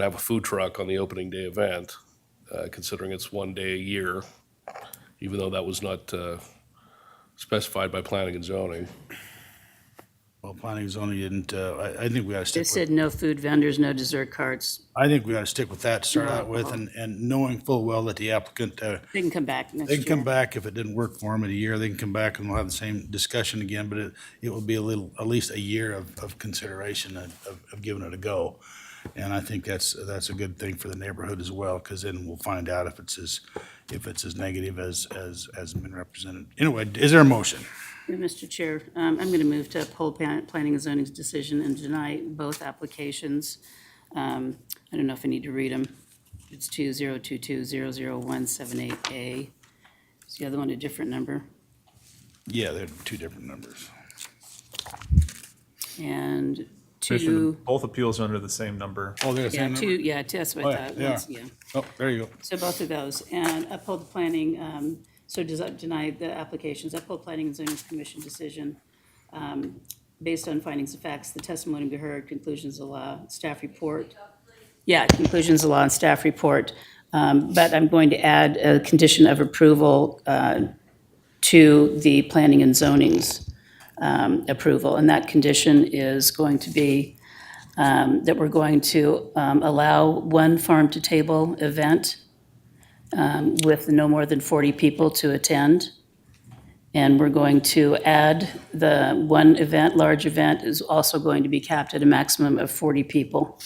and have a food truck on the opening day event, uh, considering it's one day a year, even though that was not uh, specified by planning and zoning. Well, planning and zoning didn't, uh, I, I think we ought to They stick with, said no food vendors, no dessert carts. I think we ought to stick with that to start out with, and, and knowing full well that the applicant, uh, They can come back next they year. can come back if it didn't work for them in a year, they can come back and we'll have the same discussion again, but it, it will be a little, at least a year of, of consideration and of, of giving it a go. And I think that's, that's a good thing for the neighborhood as well, because then we'll find out if it's as, if it's as negative as, as, as been represented. Anyway, is there a motion? Yeah, Mr. Chair, um, I'm going to move to uphold plan- planning and zoning's decision and deny both applications. Um, I don't know if I need to read them. It's 2022-00178A. Is the other one a different number? Yeah, they're two different numbers. And Commissioner, two, both appeals are under the same number. Oh, they're the yeah, same two, number? yeah, that's Oh, what yeah, I thought. they are. once- Yeah. Oh, there you go. So both of those, and uphold the planning, um, so does that deny the applications, uphold planning and zoning commission decision. um, Based on findings of facts, the testimony be heard, conclusions of law, staff report. Yeah, conclusions of law and staff report. Um, But I'm going to add a condition of approval uh, to the planning and zoning's um, approval. And that condition is going to be um, that we're going to um, allow one farm-to-table event with no more than 40 people to attend. And we're going to add the one event, large event, is also going to be capped at a maximum of 40 people.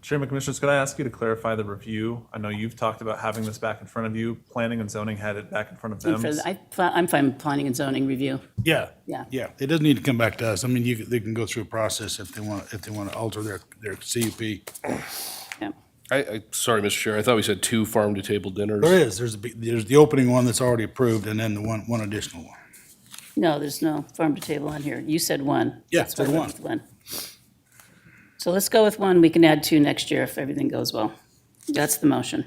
Chairman Commissioners, could I ask you to clarify the review? I know you've talked about having this back in front of you. Planning and zoning had it back in front of Um, And them. for- I- I'm fine with planning and zoning review. Yeah. Yeah. Yeah, it doesn't need to come back to us. I mean, you, can- they can go through a process if they want, if they want to alter their, their CUP. Yeah. I, I, sorry, Mr. Chair, I thought we said two farm-to-table There dinners. is, there's, a big- there's the opening one that's already approved and then the one, one additional one. No, there's no farm to table on here. You said one. Yeah, That's why said I went with So let's go with one. We can add two next year if everything goes well. That's the motion.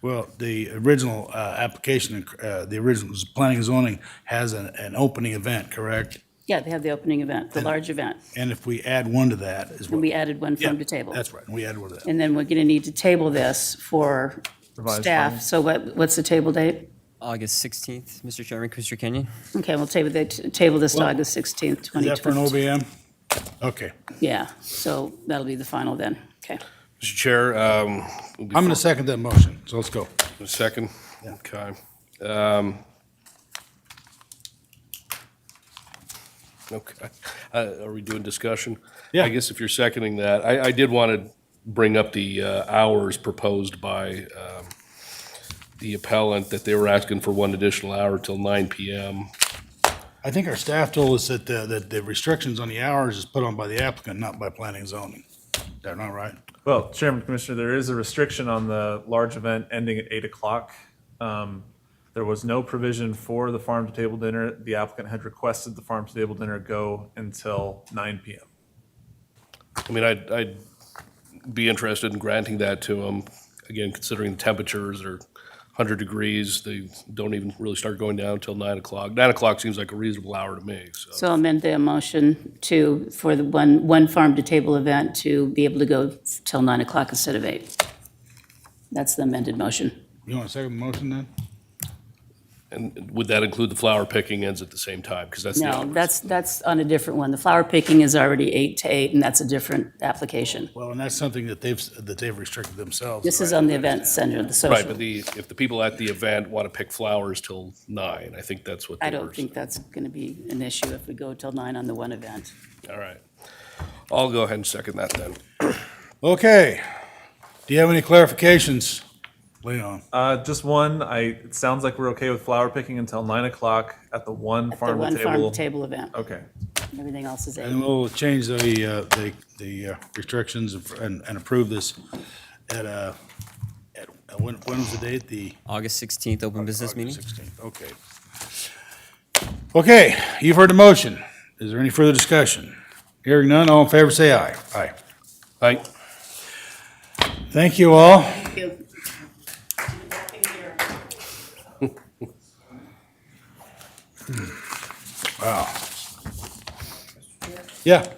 Well, the original, uh, application, uh, the original planning and zoning has an, an opening event, correct? Yeah, they have the opening event, the large event. And if we add one to that is And what. we added one Yeah, farm to table. That's right, we add one to that. And then we're going to need to table this for Revised staff. findings. So what, what's the table date? August 16th, Mr. Chairman, Commissioner Kenyon. Okay, we'll table, the- table this to August 16th, Is that for an 2020. OBM? Okay, Yeah, so that'll be the final then. Okay. Mr. Chair, um, we'll be I'm gonna second that motion, so let's go. A second? Okay. Um, Okay. Uh, Are we doing discussion? Yeah. I guess if you're seconding that, I, I did want to bring up the uh, hours proposed by um, the appellant, that they were asking for one additional hour till nine PM. I think our staff told us that, the- that the restrictions on the hours is put on by the applicant, not by planning and zoning. They're not right? Well, Chairman Commissioner, there is a restriction on the large event ending at eight o'clock. Um, There was no provision for the farm to table dinner. The applicant had requested the farm to table dinner go until nine PM. I mean, I'd, I'd be interested in granting that to them, again, considering the temperatures are 100 degrees, they don't even really start going down till 9 o'clock. 9 o'clock seems like a reasonable hour to me, so. So I'll amend the motion to, for the one, one farm-to-table event to be able to go till 9 o'clock instead of 8. That's the amended motion. You want to second the motion then? And would that include the flower picking ends at the same time? Because that's the No, other- that's, that's on a different one. The flower picking is already 8 to 8, and that's a different application. Well, and that's something that they've, that they've restricted themselves. This is right? on the event center, the social. Right, but the, if the people at the event want to pick flowers till nine, I think that's what. I they don't were think that's going to be an issue if we go till nine on the one event. saying. All right. I'll go ahead and second that then. Okay. Do you have any clarifications, Leon? Uh, just one, I, it sounds like we're okay with flower picking until nine o'clock at the one The farm one to farm to table. table event. Okay. Everything else is And eight. we'll change the, uh, the, the uh, restrictions and, and approve this at, uh, at, uh, when, when was the date? The August 16th, open business meeting. August 16th, okay. Okay, you've heard the motion. Is there any further discussion? Hearing none, all in favor, say aye. Aye. Aye. Thank you all. Thank you. Yeah.